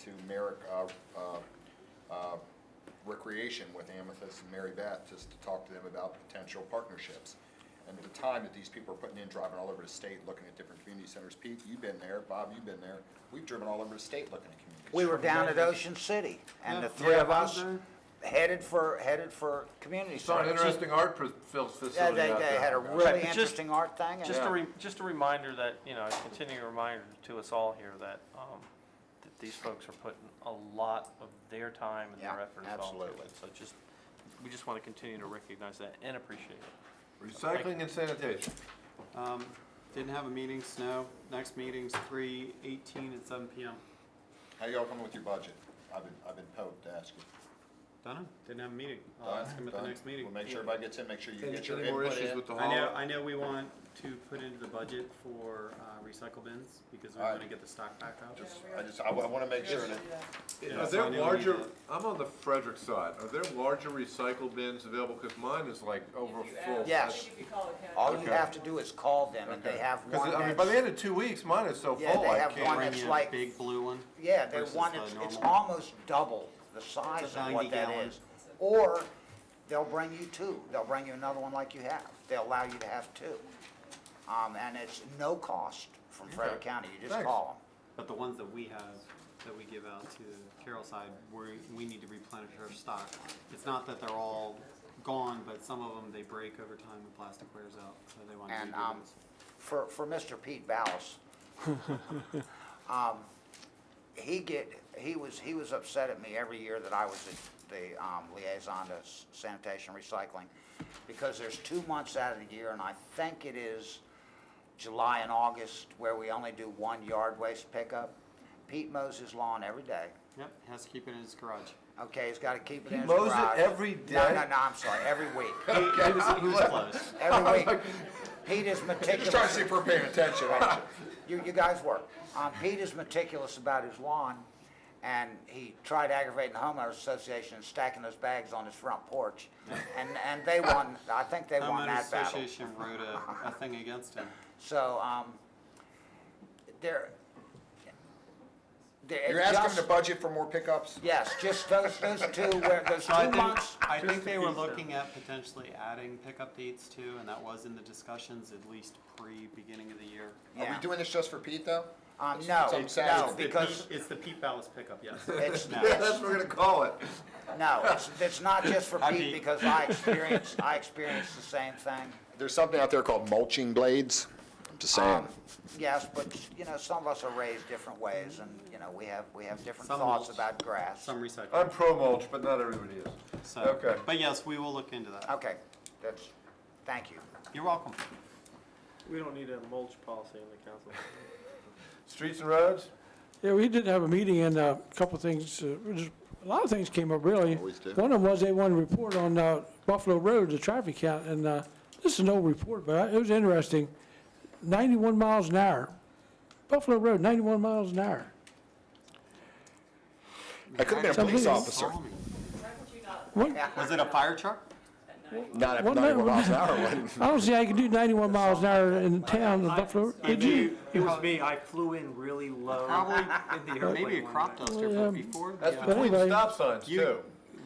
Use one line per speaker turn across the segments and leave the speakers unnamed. to Merrick uh, uh, uh, Recreation with Amethyst and Mary Beth, just to talk to them about potential partnerships. And the time that these people are putting in, driving all over the state, looking at different community centers. Pete, you've been there, Bob, you've been there. We've driven all over the state looking at community.
We were
centers.
down at Ocean City, and the three
Yeah,
of
I
us
was
headed for, headed for community
Saw an
service.
interesting art pro- fil-
Yeah,
facility
they,
out
they
there.
had a
Yeah.
really
Just-
interesting art thing, and
Just a,
Yeah.
re- just a reminder that, you know, a continuing reminder to us all here that, um, that these folks are putting a lot of their time and
Yeah,
their effort involved.
absolutely.
So just, we just want to continue to recognize that and appreciate it.
Recycling and sanitation.
Um, didn't have a meeting, snow. Next meeting's three eighteen at seven PM.
How y'all coming with your budget? I've been, I've been poked to ask you.
Done? Didn't have a meeting. I'll ask him at the
Done?
next meeting.
We'll make sure everybody gets in, make sure you
Any
get your
any more
input
issues
in.
with the
I know,
hall?
I know we want to put into the budget for, uh, recycle bins because we
Alright.
wanna get the stock back up.
Just- I just, I want to make sure that,
Yeah,
Are
so I
there
know we
larger,
need
I'm on the Frederick side, are there larger recycle bins available? Because mine is like over full.
Yes.
I think if you call it county.
all you
Okay.
have to do is call them, and they have one
Because, I mean, by the
that's,
end of two weeks, mine is so
Yeah,
full,
they
I
have one
can't.
that's
Bring in
like-
a big blue one.
yeah, they
versus
want,
the
it's, it's
normal.
almost double the size
It's a
of what that
90
is. Or they'll bring you two, they'll bring you another one like you have, they'll allow you to have two. Um, and it's no cost from Frederick County, you just
Thanks.
call them.
But the ones that we have, that we give out to the Carroll side, we, we need to replenish our stock. It's not that they're all gone, but some of them, they break over time when plastic wears out, so they want to
And,
redo
um,
those.
for, for Mr. Pete Ballas, um, he get, he was, he was upset at me every year that I was the, the, um, liaison to s- sanitation recycling, because there's two months out of the year, and I think it is July and August, where we only do one yard waste pickup. Pete mows his lawn every day,
Yep, has to keep it in his garage.
okay, he's gotta keep it in his
mows it
garage.
every
No,
day?
no, no, I'm sorry, every week,
He, he was, he was close.
every week. Pete is meticulous.
just trying to see if we're paying attention.
Right. You, you guys work. Um, Pete is meticulous about his lawn, and he tried aggravating the homeowners association and stacking those bags on his front porch. And, and they won, I think they won that
Homeowners
battle.
Association wrote a, a thing against him.
So, um, there, there,
You're
it
asking
just,
them to budget for more pickups?
yes, just those, those two, where, those
So I
two
think-
months.
I think
Just
they
a
were
piece of-
looking at potentially adding pickup dates too, and that was in the discussions, at least pre-beginning of the year.
Are
Yeah.
we doing this just for Pete, though?
Um,
It's-
no,
it's on
no,
Saturday.
because
It's the Pete Ballas pickup, yes.
it's,
No.
That's what we're gonna call it.
no, it's, it's not just for
Hi,
Pete,
Pete.
because I experienced, I experienced the same thing.
There's something out there called mulching blades. I'm just saying.
Um, Yes, but, you know, some of us are raised different ways, and, you know, we have, we have different
Some
thoughts
will-
about grass.
Some recycling.
I'm pro mulch, but not everybody is.
So,
Oh, Okay.
But yes, we will look into that.
Okay, that's, thank you.
You're welcome.
We don't need a mulch policy in the council.
Streets and roads?
Yeah, we did have a meeting and uh, a couple of things, uh, just- a lot of things came up, really.
Always do.
One of them was they wanted to report on uh, Buffalo Road, the traffic count, and uh, this is an old report, but I- it was interesting. 91 miles an hour. Buffalo Road, 91 miles an hour.
I could have been a police officer.
Why would you not
One-
Was it a fire truck?
Not at
One
91
minute.
miles an hour, wasn't
I don't see how you can do 91 miles an hour in the town of Buffalo. Did you?
It was me, I flew in really low.
Probably,
in the
or
airplane
maybe a
one
crop
night.
duster,
Well,
but
um,
before.
That's
the-
between the
anyway.
stop signs
You-
too.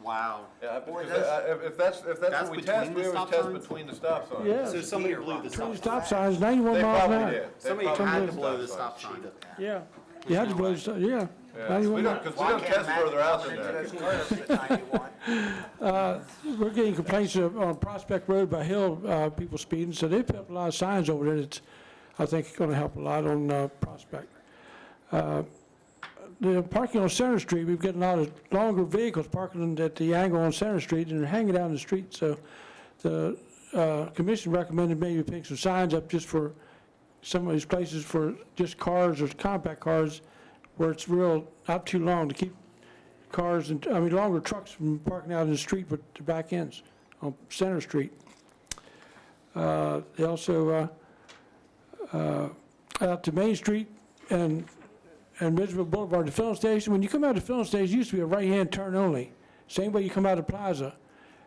Wow.
Yeah, because I- if, if that's, if that's
That's
what we
between
test,
the
we always
stop
test
signs?
between the stop signs.
Yeah,
So somebody blew the
Three
stop.
stop signs, 91
They
miles an hour.
probably did. They
Somebody
probably
had
did
to blow the
signs.
stop sign.
Yeah. You had to blow, the stop- yeah.
Yeah,
91
we
miles.
don't, because we don't test further out than that.
We're getting complaints of- on Prospect Road by Hill, uh, people speeding, so they put up a lot of signs over there that's, I think, going to help a lot on uh, Prospect. Uh, The parking on Center Street, we've got a lot of longer vehicles parking at the angle on Center Street and they're hanging out in the street, so the uh, commission recommended maybe putting some signs up just for some of these places for just cars or compact cars where it's real, not too long to keep cars and, I mean, longer trucks from parking out in the street, but the back ends on Center Street. Uh, They also, uh, uh, out to Main Street and, and Ridgeville Boulevard, the filling station, when you come out of the filling station, it used to be a right-hand turn only, same way you come out of Plaza.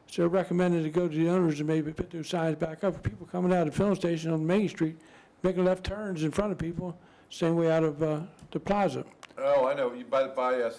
So recommended to go to the owners and maybe put those signs back up, for people coming out of the filling station on Main Street, making left turns in front of people, same way out of uh, the Plaza.
Oh, I know, You- by, by uh,